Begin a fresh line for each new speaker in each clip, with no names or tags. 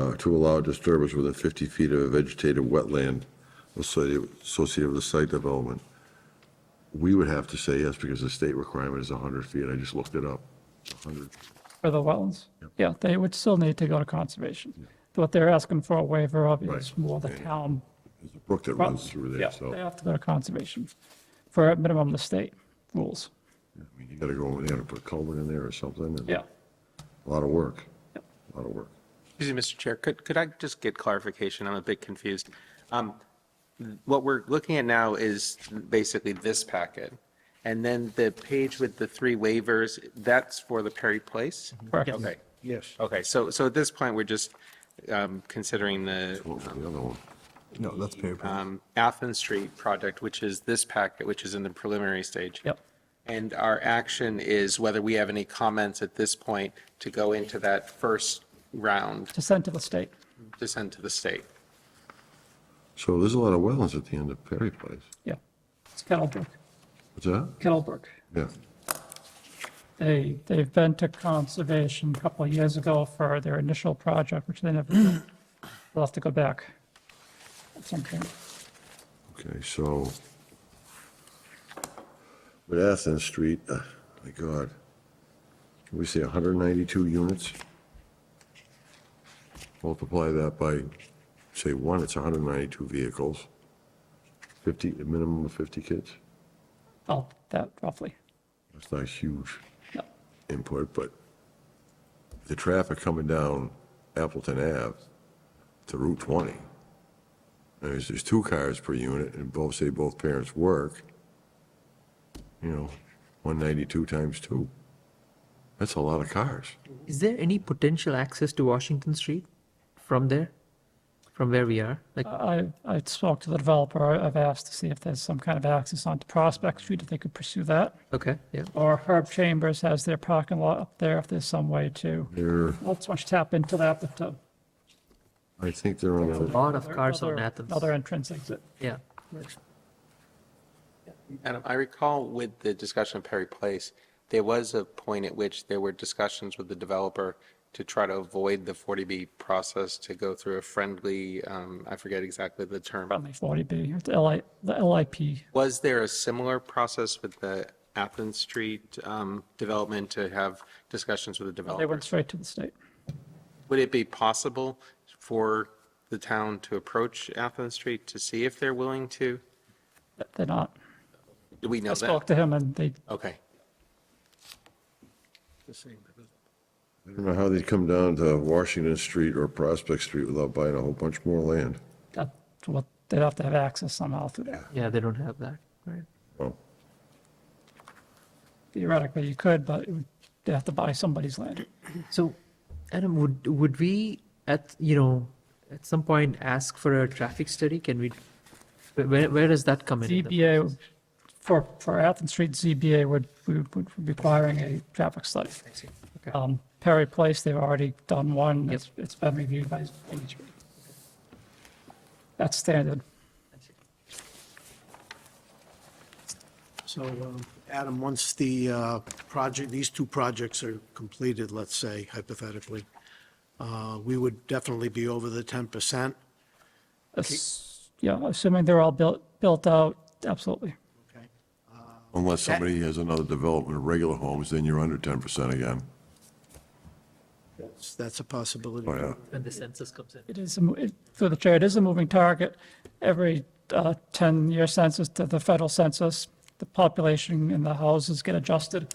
uh, to allow disturbance within 50 feet of a vegetated wetland associated associated with the site development. We would have to say yes because the state requirement is 100 feet. I just looked it up. 100.
For the wetlands? Yeah, they would still need to go to conservation. What they're asking for a waiver of is
Right. Oh.
more the town.
There's a brook that runs through
Yeah,
there, so
They
I
have to go to conservation for at minimum the state rules.
mean, you gotta go over there and put a culvert in there or something. and
Yeah.
A lot of work. A lot of work.
Excuse me, Mr. Chair, could, could I just get clarification? I'm a bit confused. Um, What we're looking at now is basically this packet, and then the page with the three waivers, that's for the Perry Place?
Correct.
Okay,
Yes.
okay, so, so at this point, we're just um, considering the
What was the other one?
No, that's Perry Place.
um, Athens Street project, which is this packet, which is in the preliminary stage.
Yep.
And our action is whether we have any comments at this point to go into that first round
To send to the state.
to send to the state.
So there's a lot of wetlands at the end of Perry Place.
Yeah. It's Kettlebrook.
What's that?
Kettlebrook.
Yeah.
They, they've been to conservation a couple of years ago for their initial project, which they never, did. they'll have to go back at some point.
Okay, so with Athens Street, uh, my God, can we say 192 units? Multiply that by, say, one, it's 192 vehicles, 50, a minimum of 50 kids.
Oh, that roughly.
That's not huge
No.
input, but the traffic coming down Appleton Ave to Route 20, there's, there's two cars per unit, and both, say both parents work, you know, 192 times two. That's a lot of cars.
Is there any potential access to Washington Street from there, from where we are? Like,
I, I spoke to the developer, I- I've asked to see if there's some kind of access onto Prospect Street, if they could pursue that.
okay, yeah.
Or Herb Chambers has their parking lot up there, if there's some way to,
They're,
not so much tap into that, but uh, to.
I think they're on
A
the,
lot of cars on
another-
Athens.
Another entrance exit.
Yeah.
Adam, I recall with the discussion of Perry Place, there was a point at which there were discussions with the developer to try to avoid the 40B process to go through a friendly, um, I forget exactly the term.
Friendly 40B, it's LI, the LIP.
Was there a similar process with the Athens Street um, development to have discussions with
They
the
went
developer?
straight to the state.
Would it be possible for the town to approach Athens Street to see if they're willing to?
They're not.
Do we know
I spoke
that?
to him and they,
Okay.
I don't know how they'd come down to Washington Street or Prospect Street without buying a whole bunch more land.
that's what, they'd have to have access somehow through there.
Yeah, they don't have that, right?
Well,
Theoretically, you could, but it would- they'd have to buy somebody's land.
So, Adam, would, would we at, you know, at some point ask for a traffic study? Can we, where, where does that come in? in? the-
ZBA, for, for Athens Street, ZBA would, would would be requiring a traffic study.
Okay.
Um, Perry Place, they've already done one.
Yep.
It's, it's been reviewed by ZBA. That's standard.
So, um, Adam, once the uh, project, these two projects are completed, let's say hypothetically, uh, we would definitely be over the 10%.
Ass- Yeah, assuming they're all built, built out, absolutely.
Unless somebody has another development of regular homes, then you're under 10% again.
That's- That's a possibility.
Oh, yeah.
When the census comes in.
It is, a mo- it- through the chair, it is a moving target. Every 10-year census to the federal census, the population and the houses get adjusted.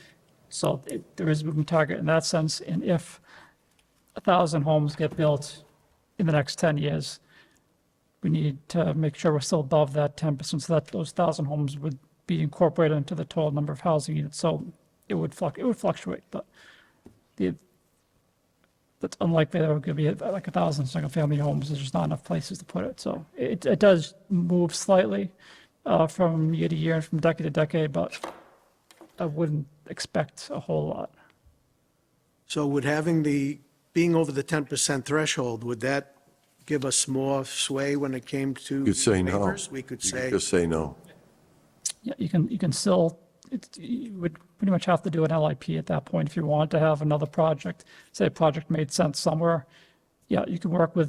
So it- there is a moving target in that sense. And if a 1,000 homes get built in the next 10 years, we need to make sure we're still above that 10%. So that those 1,000 homes would be incorporated into the total number of housing units. So it would fluc, it would fluctuate, but the, that's unlikely there could be like a thousand single-family homes, there's just not enough places to put it, so it, it does move slightly uh, from year to year and from decade to decade, but I wouldn't expect a whole lot.
So would having the, being over the 10% threshold, would that give us more sway when it came to?
You could say no.
waivers? We could
You
say,
Just say no.
Yeah, you can, you can still, it, you would pretty much have to do an LIP at that point if you want to have another project. Say a project made sense somewhere, yeah, you can work with